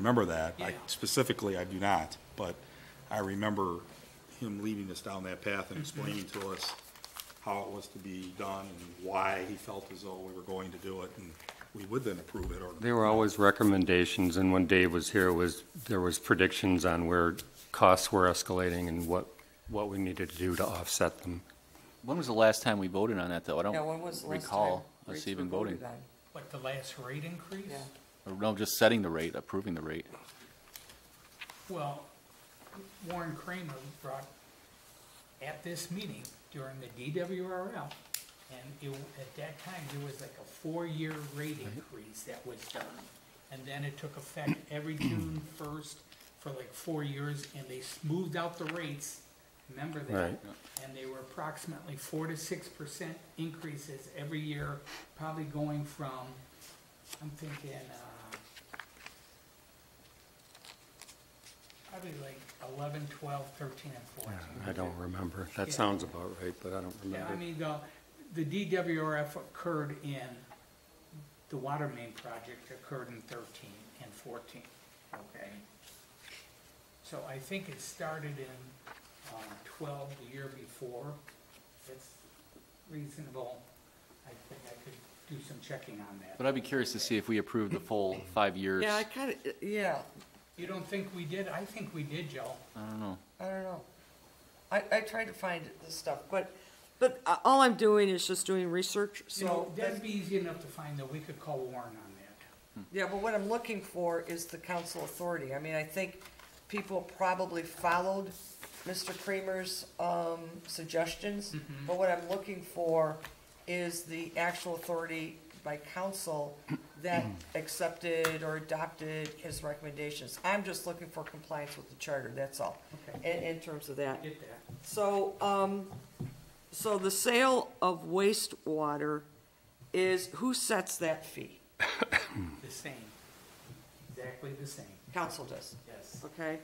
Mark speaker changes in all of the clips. Speaker 1: remember that. I
Speaker 2: Yeah.
Speaker 1: Specifically, I do not, but I remember him leading us down that path and explaining to us how it was to be done and why he felt as though we were going to do it, and we would then approve it or.
Speaker 3: There were always recommendations, and when Dave was here, was, there was predictions on where costs were escalating and what, what we needed to do to offset them.
Speaker 4: When was the last time we voted on that, though? I
Speaker 5: Yeah, when was
Speaker 4: don't
Speaker 5: the last time?
Speaker 4: recall us
Speaker 5: rates
Speaker 4: even
Speaker 5: were voted
Speaker 4: voting.
Speaker 5: on?
Speaker 2: What, the last rate increase?
Speaker 5: Yeah.
Speaker 4: Or no, just setting the rate, approving the rate.
Speaker 2: Well, Warren Kramer brought, at this meeting during the DWRL, and it, at that time, there was like a four-year rate increase that was done. And then it took effect every June first for like four years, and they smoothed out the rates, remember that?
Speaker 3: Right.
Speaker 2: And they were approximately four to six percent increases every year, probably going from, I'm thinking, uh, Probably like 11, 12, 13, and 14.
Speaker 3: I don't remember. That
Speaker 2: Yeah.
Speaker 3: sounds about right, but I don't
Speaker 2: Yeah, I
Speaker 3: remember.
Speaker 2: mean, the, the DWRF occurred in, the water main project occurred in 13 and 14, okay? So I think it started in um, 12 the year before. It's reasonable. I think I could do some checking on that.
Speaker 4: But I'd be curious to see if we approved the full five years.
Speaker 5: Yeah, I kind of, yeah,
Speaker 2: You don't think we did? I think we did, Joe.
Speaker 4: I don't know.
Speaker 5: I don't know. I, I tried to find this stuff, but, but uh, all I'm doing is just doing research,
Speaker 2: You know,
Speaker 5: so.
Speaker 2: that'd be easy enough to find, though. We could call Warren on that.
Speaker 5: Yeah, but what I'm looking for is the council authority. I mean, I think people probably followed Mr. Kramer's, um, suggestions, but what I'm looking for is the actual authority by council that accepted or adopted his recommendations. I'm just looking for compliance with the charter, that's all, in,
Speaker 2: Okay.
Speaker 5: in terms of that.
Speaker 2: Get that.
Speaker 5: So, um, so the sale of wastewater is, who sets that fee?
Speaker 2: The same. Exactly the same.
Speaker 5: Council does,
Speaker 2: Yes.
Speaker 5: okay?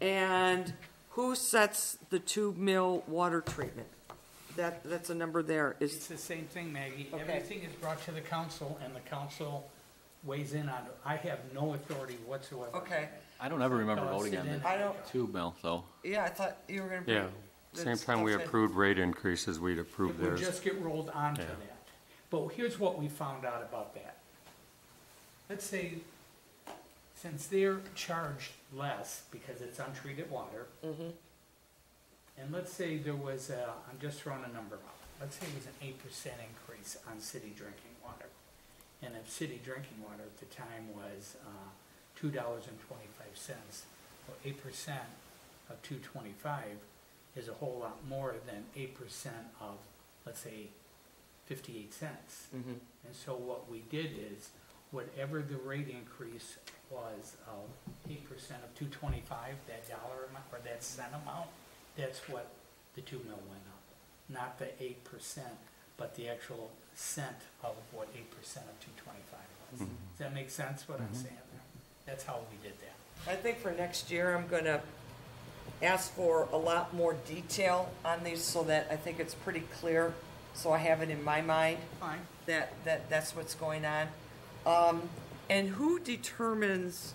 Speaker 5: And who sets the two mil water treatment? That, that's a number there,
Speaker 2: It's
Speaker 5: is,
Speaker 2: the same thing, Maggie.
Speaker 5: Okay.
Speaker 2: Everything is brought to the council and the council weighs in on it. I have no authority whatsoever. on
Speaker 5: Okay.
Speaker 2: that.
Speaker 4: I don't ever remember
Speaker 2: Tell us
Speaker 4: voting
Speaker 2: it
Speaker 4: on
Speaker 2: in.
Speaker 4: that.
Speaker 5: I don't-
Speaker 4: Two mil, though.
Speaker 5: yeah, I thought you were gonna bring.
Speaker 3: Yeah, same
Speaker 5: that's-
Speaker 3: time we
Speaker 5: okay.
Speaker 3: approved rate increases, we'd
Speaker 2: It
Speaker 3: approved
Speaker 2: would
Speaker 3: theirs.
Speaker 2: just get rolled onto
Speaker 3: Yeah.
Speaker 2: that. But here's what we found out about that. Let's say, since they're charged less because it's untreated water. And let's say there was a, I'm just throwing a number out. Let's say it was an eight percent increase on city drinking water. And if city drinking water at the time was, uh, two dollars and twenty-five cents, well, eight percent of two twenty-five is a whole lot more than eight percent of, let's say, fifty-eight cents. And so what we did is, whatever the rate increase was of eight percent of two twenty-five, that dollar amount, or that cent amount, that's what the two mil went up. Not the eight percent, but the actual cent of what eight percent of two twenty-five was. Does that make sense, what I'm saying there? That's how we did that.
Speaker 5: I think for next year, I'm gonna ask for a lot more detail on these so that I think it's pretty clear, so I have it in my mind.
Speaker 2: Fine.
Speaker 5: that, that, that's what's going on. Um, and who determines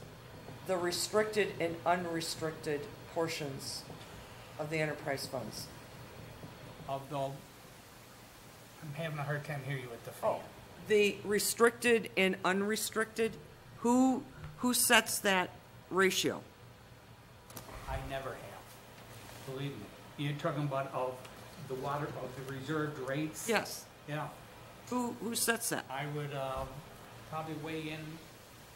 Speaker 5: the restricted and unrestricted portions of the enterprise funds?
Speaker 2: Although, I'm having a hard time hearing you with the fan.
Speaker 5: Oh, the restricted and unrestricted, who, who sets that ratio?
Speaker 2: I never have, believe me. You're talking about of the water, of the reserved rates?
Speaker 5: Yes,
Speaker 2: Yeah,
Speaker 5: who, who sets that?
Speaker 2: I would, um, probably weigh in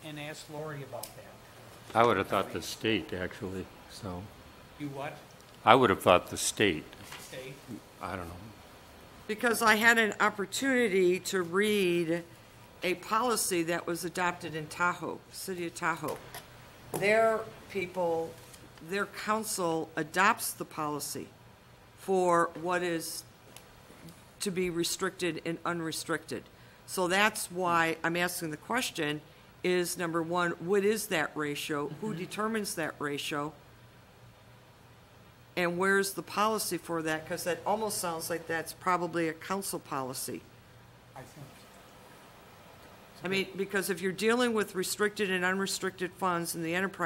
Speaker 2: and ask Lori about that.
Speaker 3: I would have thought the state, actually, so,
Speaker 2: You what,
Speaker 3: I would have thought the state,
Speaker 2: state?
Speaker 3: I don't know.
Speaker 5: Because I had an opportunity to read a policy that was adopted in Tahoe, city of Tahoe. Their people, their council adopts the policy for what is to be restricted and unrestricted. So that's why I'm asking the question is, number one, what is that ratio? Who determines that ratio? And where's the policy for that? Because that almost sounds like that's probably a council policy.
Speaker 2: I think.
Speaker 5: I mean, because if you're dealing with restricted and unrestricted funds in the enterprise